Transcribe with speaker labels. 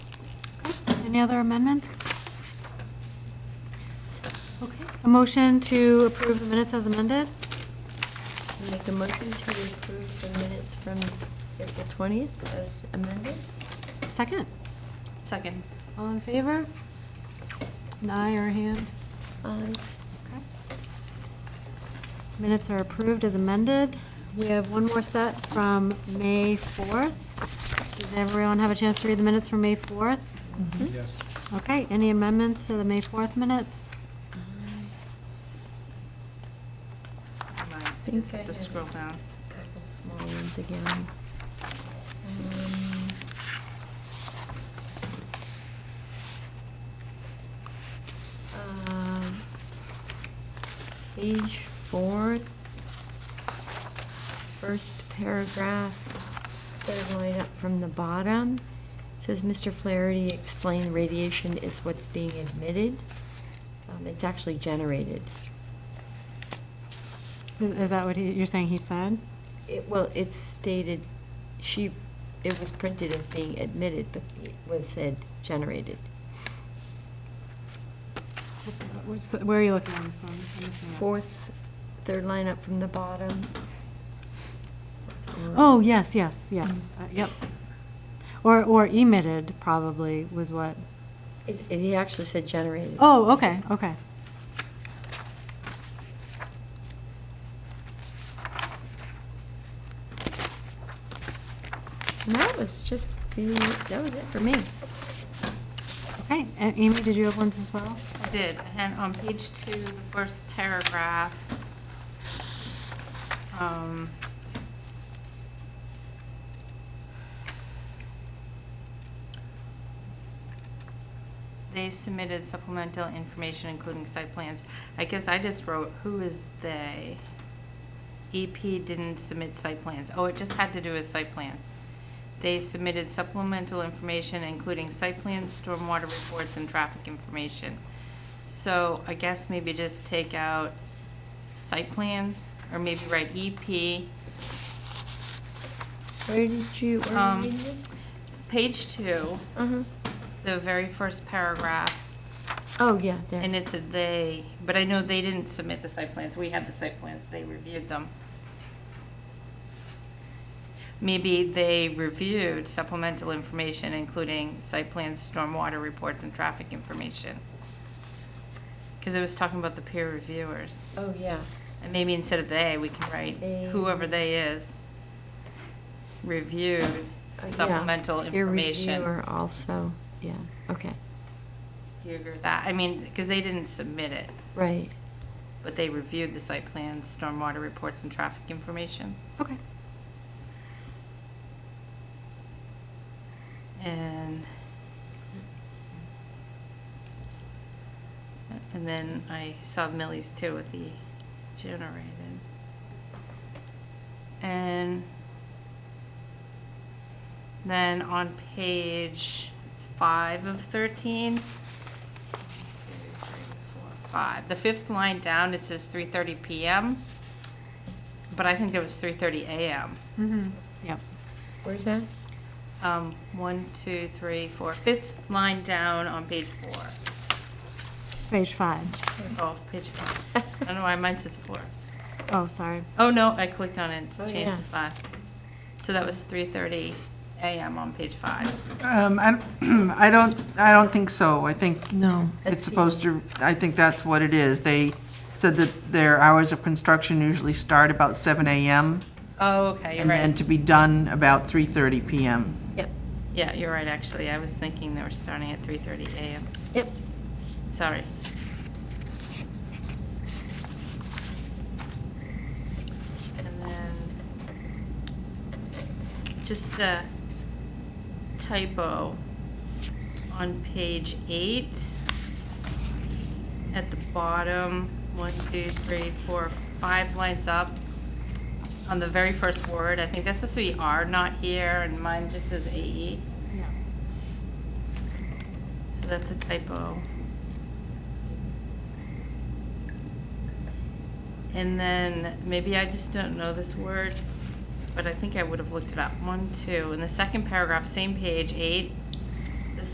Speaker 1: Any other amendments? Okay, a motion to approve the minutes as amended?
Speaker 2: Make a motion to approve the minutes from April 20th as amended?
Speaker 1: Second?
Speaker 3: Second.
Speaker 1: All in favor? An eye or a hand?
Speaker 2: Aye.
Speaker 1: Okay. Minutes are approved as amended. We have one more set from May 4th. Did everyone have a chance to read the minutes from May 4th?
Speaker 2: Hmm?
Speaker 4: Yes.
Speaker 1: Okay, any amendments to the May 4th minutes?
Speaker 3: I just have to scroll down.
Speaker 2: Couple small ones again. Um, um, Page four, first paragraph, third line up from the bottom, says, "Mr. Flaherty explained radiation is what's being admitted." Um, It's actually generated.
Speaker 1: Is is that what he- you're saying he said?
Speaker 2: It, well, it's stated, she, it was printed as being admitted, but it was said generated.
Speaker 1: Which- Where are you looking on this one? I'm missing it.
Speaker 2: Fourth, third line up from the bottom. Um,
Speaker 1: Oh, yes, yes, yes, Uh, yep. Or, or emitted probably was what,
Speaker 2: It, it he actually said generated.
Speaker 1: oh, okay, okay.
Speaker 2: And that was just the, that was it for me.
Speaker 1: Okay, and Amy, did you have ones as well?
Speaker 3: I did, and on page two, the first paragraph, um, they submitted supplemental information, including site plans. I guess I just wrote, who is they? EP didn't submit site plans. Oh, it just had to do with site plans. They submitted supplemental information, including site plans, stormwater reports, and traffic information. So I guess maybe just take out site plans, or maybe write E EP.
Speaker 2: Where did you, where
Speaker 3: Um,
Speaker 2: did you read this?
Speaker 3: Page two,
Speaker 2: Uh-huh.
Speaker 3: the very first paragraph,
Speaker 2: Oh, yeah, there.
Speaker 3: and it's a they, but I know they didn't submit the site plans. We had the site plans, they reviewed them. Maybe they reviewed supplemental information, including site plans, stormwater reports, and traffic information. Because it was talking about the peer reviewers.
Speaker 2: Oh, yeah.
Speaker 3: And maybe instead of they, we can write
Speaker 2: They-
Speaker 3: whoever they is reviewed
Speaker 2: Oh, Yeah.
Speaker 3: supplemental
Speaker 2: Your
Speaker 3: information.
Speaker 2: reviewer also, yeah, okay,
Speaker 3: Do you agree with that? I mean, because they didn't submit it,
Speaker 2: right.
Speaker 3: but they reviewed the site plans, stormwater reports, and traffic information.
Speaker 1: Okay.
Speaker 3: And, and then I saw Millie's too with the generated. And then on page five of 13, five, the fifth line down, it says 3:30 PM, but I think there was 3:30 AM.
Speaker 1: Mm-hmm. Yep.
Speaker 2: Where's that?
Speaker 3: Um, one, two, three, four, fifth line down on page four.
Speaker 1: Page five.
Speaker 3: Oh, page five. I don't know why mine says four.
Speaker 1: Oh, sorry.
Speaker 3: Oh, no, I clicked on it,
Speaker 2: Oh,
Speaker 3: to change
Speaker 2: yeah.
Speaker 3: to five. So that was three thirty AM on page five.
Speaker 5: Um, I, I don't, I don't think so. I think
Speaker 6: No.
Speaker 5: it's supposed to, I think that's what it is. They said that their hours of construction usually start about seven AM
Speaker 3: Oh, okay, you're
Speaker 5: and then
Speaker 3: right.
Speaker 5: to be done about three thirty PM.
Speaker 2: Yep,
Speaker 3: Yeah, you're right, actually. I was thinking they were starting at three thirty AM.
Speaker 2: yep.
Speaker 3: Sorry. And then, just the typo on page eight, at the bottom, one, two, three, four, five lines up, on the very first word, I think that's supposed to be are not here, and mine just says E. AE. So that's a typo. And then, maybe I just don't know this word, but I think I would have looked it up. One, two, in the second paragraph, same page, eight,